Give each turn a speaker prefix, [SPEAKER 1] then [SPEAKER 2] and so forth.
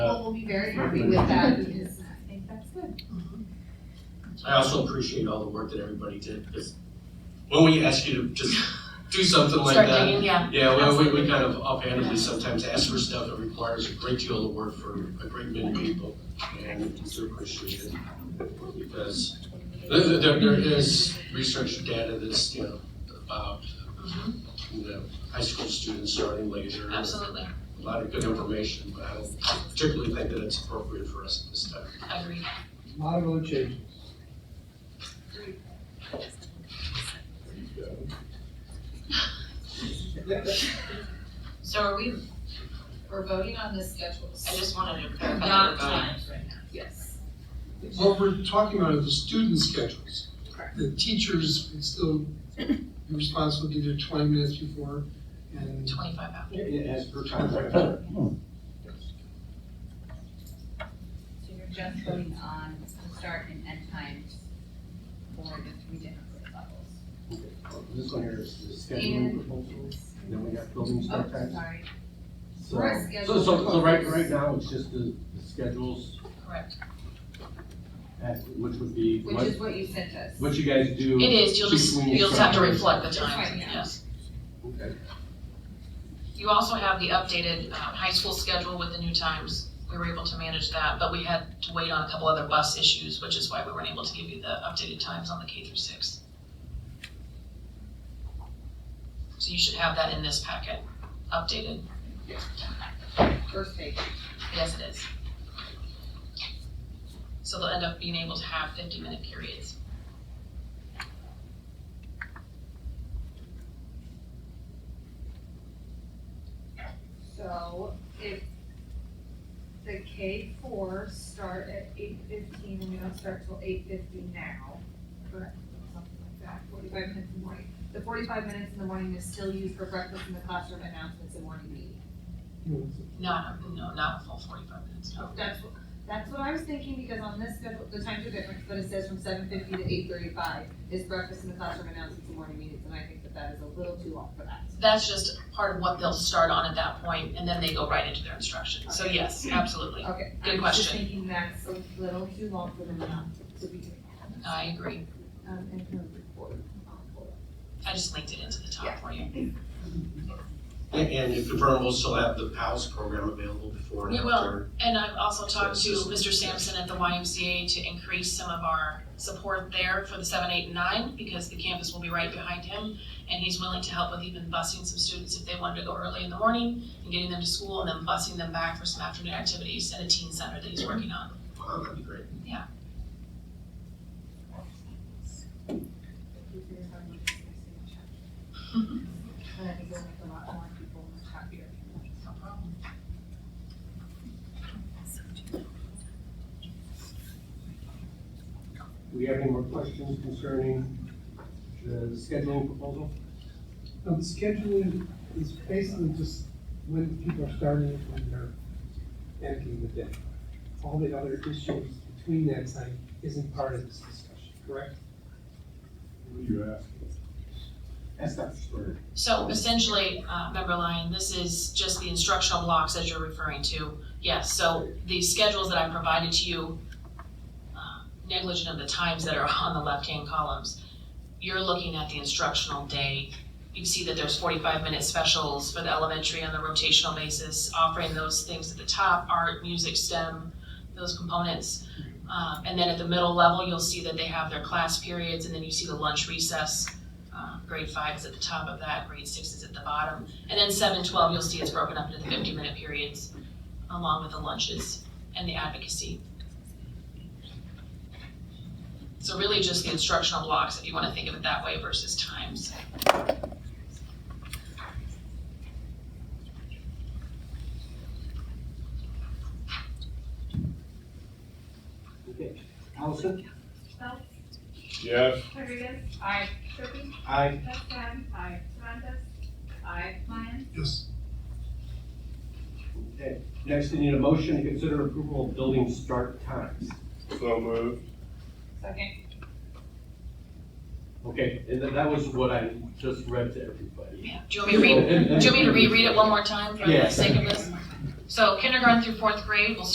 [SPEAKER 1] will be very happy with that because I think that's good.
[SPEAKER 2] I also appreciate all the work that everybody did, because when we ask you to just do something like
[SPEAKER 3] Start
[SPEAKER 2] that,
[SPEAKER 3] digging, yeah.
[SPEAKER 2] yeah, well, we, we
[SPEAKER 3] Absolutely.
[SPEAKER 2] kind of offhandedly sometimes ask for stuff that requires a great deal of work for a great many people, and we do appreciate it. Because there, there, there is research data that's, you know, about, you know, high school students starting later.
[SPEAKER 3] Mm-hmm. Absolutely,
[SPEAKER 2] A lot of good information, but I don't particularly think that it's appropriate for us at this time.
[SPEAKER 3] agreed.
[SPEAKER 4] Model changes.
[SPEAKER 3] So are we,
[SPEAKER 1] We're voting on the schedules.
[SPEAKER 3] I just wanted to clarify that
[SPEAKER 5] Not
[SPEAKER 3] we're voting.
[SPEAKER 5] times right now.
[SPEAKER 1] Yes.
[SPEAKER 6] What we're talking about are the student schedules.
[SPEAKER 1] Correct.
[SPEAKER 6] The teachers would still be responsible to do their twenty minutes before and
[SPEAKER 3] Twenty-five hours.
[SPEAKER 4] As per contract.
[SPEAKER 7] So you're just voting on the start and end times for the three different grade levels?
[SPEAKER 4] This one here is the scheduling proposal, then we got building
[SPEAKER 1] Oh,
[SPEAKER 4] start times.
[SPEAKER 1] sorry.
[SPEAKER 4] So,
[SPEAKER 1] Right,
[SPEAKER 4] so,
[SPEAKER 1] schedule.
[SPEAKER 4] so so right, right now, it's just the, the schedules,
[SPEAKER 3] Correct.
[SPEAKER 4] at- which would be,
[SPEAKER 1] Which
[SPEAKER 4] what,
[SPEAKER 1] is what you sent us.
[SPEAKER 4] what you guys do.
[SPEAKER 3] It is, you'll just,
[SPEAKER 4] between
[SPEAKER 3] you'll just have to
[SPEAKER 4] instructors.
[SPEAKER 3] reflect the
[SPEAKER 1] Right,
[SPEAKER 3] times,
[SPEAKER 1] yeah.
[SPEAKER 3] yes.
[SPEAKER 4] Okay.
[SPEAKER 3] You also have the updated, uh, high school schedule with the new times. We were able to manage that, but we had to wait on a couple other bus issues, which is why we weren't able to give you the updated times on the K through six. So you should have that in this packet, updated.
[SPEAKER 1] First page.
[SPEAKER 3] Yes, it is. So they'll end up being able to have fifty-minute periods.
[SPEAKER 1] So if the K four start at eight fifteen and we don't start till eight fifty now, correct, something like that, forty-five minutes in the morning. The forty-five minutes in the morning is still used for breakfast in the classroom announcements and morning meeting.
[SPEAKER 3] Not, no, not a full forty-five minutes, no.
[SPEAKER 1] Oh, That's, what- that's what I was thinking because on this schedule, the times are different, but it says from seven fifty to eight thirty-five is breakfast in the classroom announcements and morning meetings, and I think that that is a little too long for that.
[SPEAKER 3] That's just part of what they'll start on at that point, and then they go right into their instruction. So yes, absolutely.
[SPEAKER 1] Okay.
[SPEAKER 3] Good
[SPEAKER 1] I was just
[SPEAKER 3] question.
[SPEAKER 1] thinking that's a little too long for them not to be doing that.
[SPEAKER 3] I agree.
[SPEAKER 1] Um, and her report.
[SPEAKER 3] I just linked it into the
[SPEAKER 1] Yeah.
[SPEAKER 3] top for you.
[SPEAKER 2] And- And if the firm will still have the PALS program available before and
[SPEAKER 3] We
[SPEAKER 2] after.
[SPEAKER 3] will. And I've also talked to Mr. Sampson at the YMCA to increase some of our support there for the seven, eight, and nine, because the campus will be right behind him. And he's willing to help with even busing some students if they wanted to go early in the morning and getting them to school and then busing them back for some afternoon activities at a teen center that he's working on.
[SPEAKER 2] Wow, that'd be great.
[SPEAKER 3] Mm-hmm.
[SPEAKER 1] And I think it'll make a lot more people happier.
[SPEAKER 3] No problem.
[SPEAKER 4] Do we have any more questions concerning the scheduling proposal?
[SPEAKER 6] Now, the scheduling is basically just when people are starting it, when they're ending the day. All the other issues between that time isn't part of this discussion, correct?
[SPEAKER 8] What do you ask?
[SPEAKER 4] That's not story.
[SPEAKER 3] So essentially, uh, member Lyon, this is just the instructional blocks as you're referring to. Yes, so the schedules that I provided to you, uh, negligent of the times that are on the left-hand columns, you're looking at the instructional day. You see that there's forty-five minute specials for the elementary on the rotational basis, offering those things at the top, art, music, STEM, those components. Uh, and then at the middle level, you'll see that they have their class periods, and then you see the lunch recess. Uh, grade five is at the top of that, grade six is at the bottom. And then seven, twelve, you'll see it's broken up into the fifty-minute periods, along with the lunches and the advocacy. So really just the instructional blocks, if you wanna think of it that way versus times.
[SPEAKER 4] Okay. Allison?
[SPEAKER 8] Yes,
[SPEAKER 5] Rodriguez? Aye. Griffin?
[SPEAKER 4] Aye.
[SPEAKER 5] Dunn? Aye. Hernandez? Aye. Lyon?
[SPEAKER 6] Yes.
[SPEAKER 4] Okay. Next, we need a motion to consider approval of building start times.
[SPEAKER 8] so move.
[SPEAKER 5] Second.
[SPEAKER 4] Okay, and that, that was what I just read to everybody.
[SPEAKER 3] Yeah. Do you want me to read, do you want me to reread it one more time for the
[SPEAKER 4] Yeah.
[SPEAKER 3] sake of this? So kindergarten through fourth grade will